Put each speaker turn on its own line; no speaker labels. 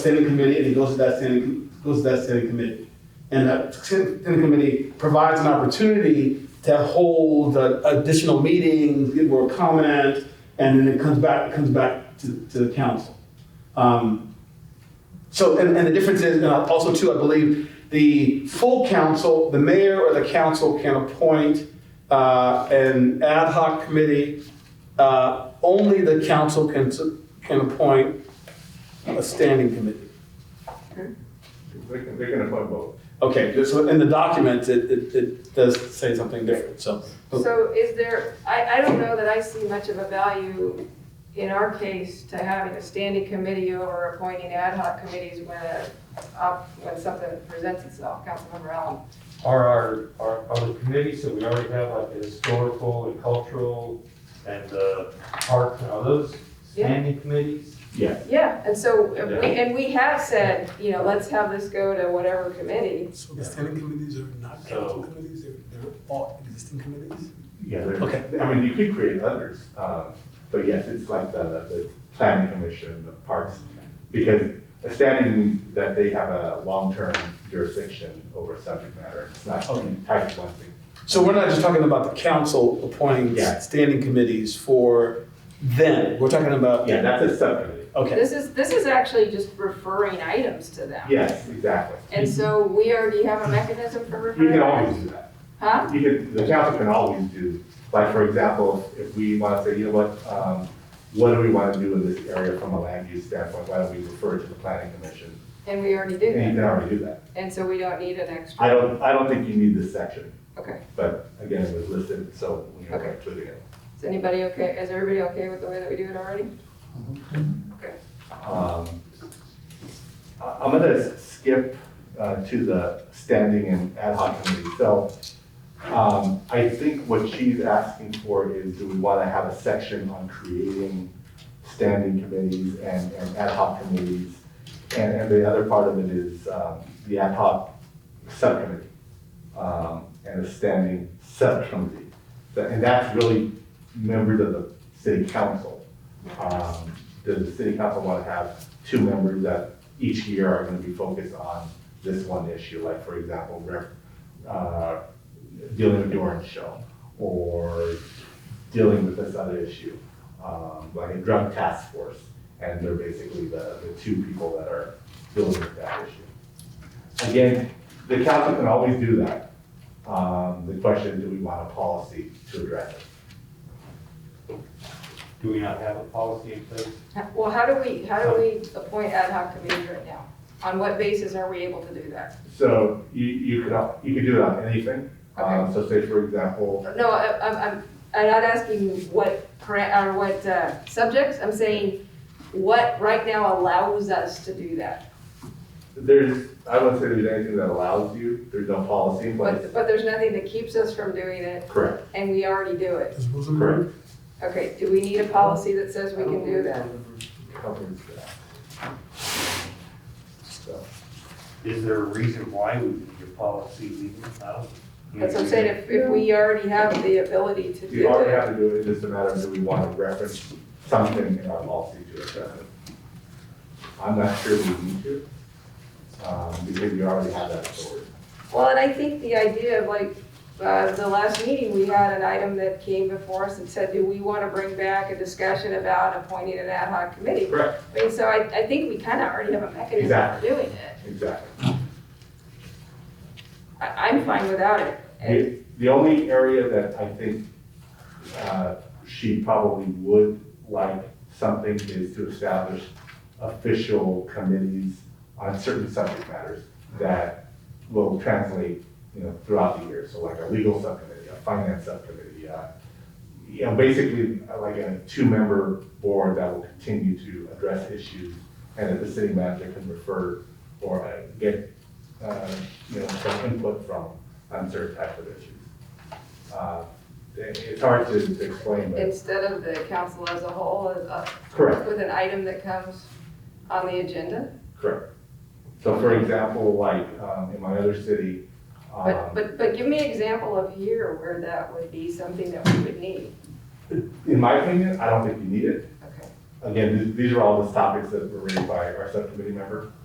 standing committee, and it goes to that standing, goes to that standing committee. And that standing committee provides an opportunity to hold uh, additional meetings, get more comment, and then it comes back, it comes back to, to the council. Um, So, and, and the difference is, and also too, I believe, the full council, the mayor or the council can appoint uh, an ad hoc committee. Uh, Only the council can, s- can appoint a standing committee.
They can, they can appoint both.
Okay, just so in the document, it, it, it does say something different, so.
So is there, I, I don't know that I see much of a value in our case to having a standing committee over appointing ad hoc committees when a, op- when something presents itself, Councilmember Allen.
are our, our, our committees, so we already have like the historical and cultural and the park, and all those
Yeah.
standing committees?
Yeah, and so, if we- and we have said, you know, let's have this go to whatever committee.
So the standing committees are not council committees, they're, they're all existing committees?
Yeah,
Okay.
okay. I mean, you could create others, um, but yes, it's like the, the planning commission, the parks, because a standing that they have a long-term jurisdiction over subject matter, it's not
Okay.
tied to one thing.
So we're not just talking about the council appointing
Yeah.
standing committees for them, we're talking about.
Yeah, that's a subcommittee.
Okay,
This is, this is actually just referring items to them.
Yes, exactly.
And so we already have a mechanism for
You
referring.
can
items.
always do that.
Huh?
You can, the council can always do, like, for example, if we want to say, you know what, um, what do we want to do in this area from a land use standpoint? Why don't we refer it to the planning commission?
And we already do
And you
that.
can already do that.
And so we don't need an extra.
I don't, I don't think you need this section,
Okay.
but again, it was listed, so we are
Okay.
including it.
Is anybody okay, is everybody okay with the way that we do it already?
Um, I- I'm gonna skip uh, to the standing and ad hoc committee. So um, I think what she's asking for is, do we want to have a section on creating standing committees and and ad hoc committees? And and the other part of it is um, the ad hoc subcommittee um, and a standing subcommittee. But- And that's really members of the city council. Um, Does the city council want to have two members that each year are going to be focused on this one issue? Like, for example, ref- uh, dealing with Doran's show or dealing with this other issue, um, like a drug task force. And they're basically the, the two people that are dealing with that issue. Again, the council can always do that. Um, The question, do we want a policy to address it?
Do we not have a policy in place?
Well, how do we, how do we appoint ad hoc committees right now? On what basis are we able to do that?
So you, you could, al- you could do it on anything. Um, So say, for example,
No, I- I'm, I'm, I'm not asking what, para- or what uh, subjects, I'm saying what right now allows us to do that.
there's, I wouldn't say there's anything that allows you, there's no policy in place.
But, but there's nothing that keeps us from doing it,
Correct.
and we already do it.
As rules of
Correct.
order?
Okay, do we need a policy that says we can do that?
Covers that. So,
Is there a reason why we need a policy legal? I don't-
That's what I'm saying, if, if we already have the ability to
You
do
already
it.
have to do it, it's just a matter of do we want to reference something in our policy to address it? I'm not sure we need to, um, because you already have that authority.
Well, and I think the idea of like, uh, the last meeting, we had an item that came before us and said, do we want to bring back a discussion about appointing an ad hoc committee?
Correct.
I mean, so I, I think we kind of already have a mechanism for
Exactly.
doing it.
Exactly.
I, I'm fine without it. And-
The, the only area that I think, uh, she probably would like something is to establish official committees on certain subject matters that will translate, you know, throughout the year. So like a legal subcommittee, a finance subcommittee, uh, you know, basically uh, like a two-member board that will continue to address issues and that the city manager can refer or uh, get, uh, you know, some input from on certain types of issues. Uh, it- It's hard to to explain, but
Instead of the council as a whole, uh,
correct,
with an item that comes on the agenda.
correct. So for example, like um, in my other city,
But,
um,
but, but give me an example of here where that would be something that we would need.
in my opinion, I don't think you need it.
Okay.
again, these- these are all the topics that were raised by our subcommittee member.